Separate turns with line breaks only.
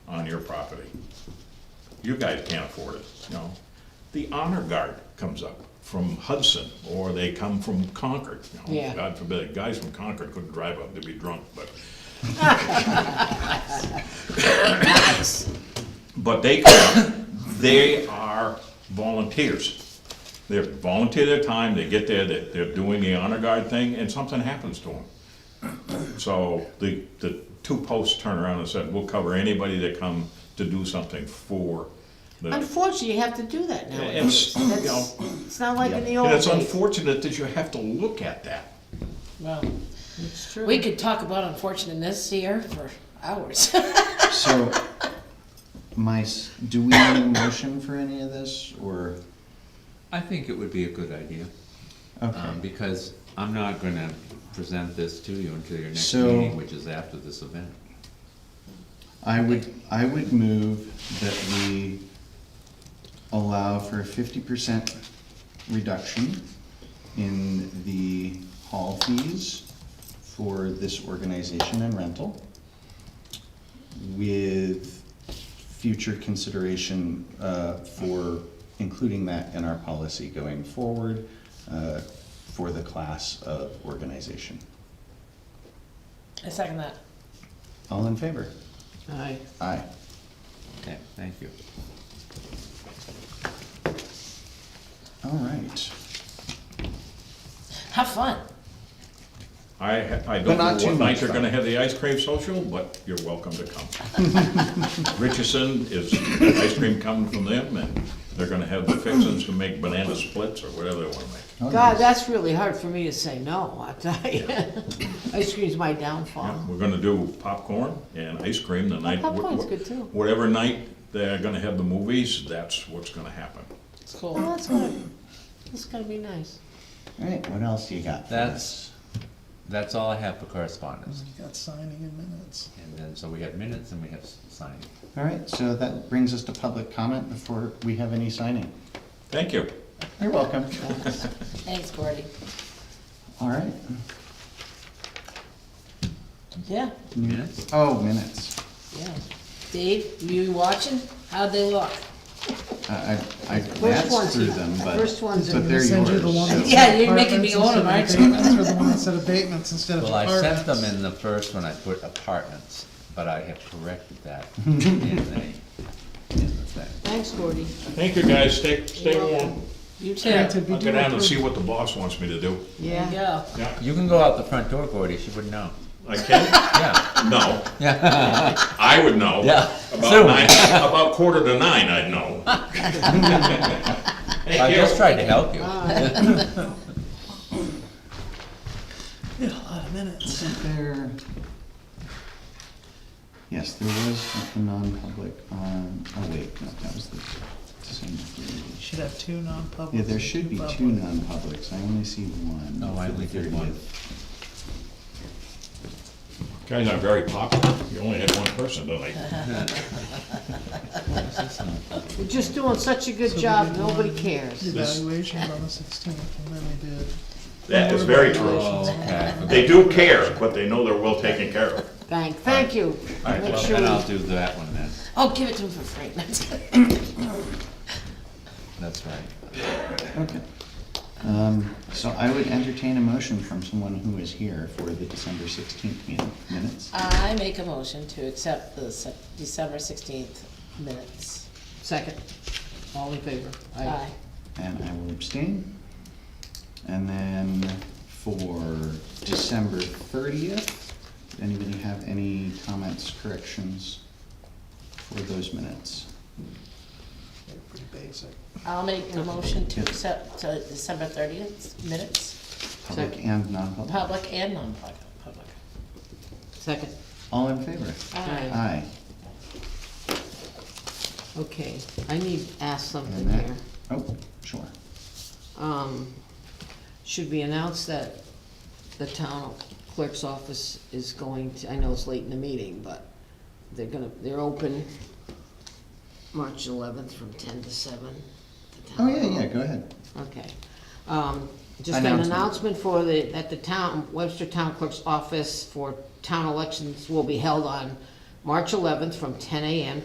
your property. You guys can't afford it, you know? The honor guard comes up from Hudson, or they come from Concord, you know?
Yeah.
God forbid, guys from Concord couldn't drive up, they'd be drunk, but. But they, come. they are volunteers. They volunteer their time, they get there, they- they're doing the honor guard thing, and something happens to them. So the, the two posts turned around and said, we'll cover anybody that come to do something for the.
Unfortunately, you have to do that nowadays.
It's, you know,
That's, it's not like in the old
And it's
days.
unfortunate that you have to look at that.
Well,
It's true.
we could talk about unfortunateness here for hours.
So, my, s- do we need a motion for any of this, or,
I think it would be a good idea,
okay,
um, because I'm not gonna present this to you until your next
So-
meeting, which is after this event.
I would, I would move that we allow for a fifty percent reduction in the hall fees for this organization and rental with future consideration, uh, for including that in our policy going forward, uh, for the class of organization.
I second that.
All in favor?
Aye.
Aye.
Okay, thank you.
All right.
Have fun.
I, ha- I
But
don't
not
know
too
what night
much
you're
fun.
gonna have the ice cream social, but you're welcome to come. Richardson is, ice cream coming from them, and they're gonna have the fixins to make banana splits or whatever they wanna make.
Oh,
God,
yes.
that's really hard for me to say no, I tell you. Ice cream's my downfall.
Uh, We're gonna do popcorn and ice cream the night.
Oh, Popcorn's good, too.
Whatever night they're gonna have the movies, that's what's gonna happen.
It's cool.
Well, Oh, that's good. That's gonna be nice.
All right, what else you got? for
That's, that's all I have for correspondence.
You got signing in minutes.
And then, so we have minutes and we have s- signing.
us? All right, so that brings us to public comment before we have any signing.
Thank you.
You're welcome.
Thanks, Gordy.
All right.
Yeah,
Minutes?
Oh, minutes.
yeah. Dave, you watching? How'd they look?
I, I I
one's-
glanced through them, but,
first one's in-
but
They
they're
send you the one that
yours.
Yeah,
said
you're making me own 'em,
apartments
aren't you?
instead of abatements, Or the one that said abatements instead of
Well, I sent
apartments.
them in the first one, I put apartments, but I have corrected that in the, in the thing.
Thanks, Gordy.
Thank you, guys. Stay, stay warm.
You too.
Yeah,
There
to
you
be
I'll go down and
directed.
see what the boss wants me to do.
Yeah.
go.
Yeah,
You can go out the front door, Gordy, she would know.
I can?
Yeah,
No. I would know.
yeah.
About nine, about quarter to nine, I'd know. Thank
I
you.
just tried to help you.
Ah.
Did a lot of minutes.
There. Yes, there was a non-public on, oh wait, no, that was the same.
Should have two non-publics.
Yeah, there
and
should be two
public.
non-publics. I only see one.
No, I
for the
only did one.
30th.
Guys are very popular. You only had one person tonight.
You're just doing such a
So
good
we
job,
did
nobody
one.
cares.
Evaluations on the sixteenth, and then we did.
That is very true.
Oh.
Okay.
They do care, but they know they're well taken care of.
Thank, thank you.
All right,
Make
well,
sure
then
we-
I'll do that one then,
Oh, give it to him for free. That's good.
that's right.
Okay. Um, So I would entertain a motion from someone who is here for the December sixteenth minutes.
I make a motion to accept the Sep- December sixteenth minutes.
Second. All in favor?
Aye.
And I will abstain. And then for December thirtieth, anybody have any comments, corrections for those minutes?
They're pretty basic.
I'll make a motion to accept uh, December thirtieth minutes,
Public and non-public?
public and non-public. public.
Second.
All in favor?
Aye.
Aye.
Okay, I need to ask something
And that,
here.
oh, sure.
Um, Should we announce that the town clerk's office is going to, I know it's late in the meeting, but they're gonna, they're open March eleventh from ten to seven. the
Oh,
town
yeah,
hall.
yeah, go ahead.
Okay. Um, Just an
Announcement.
announcement for the, that the town, Webster Town Clerk's office for town elections will be held on March eleventh from ten AM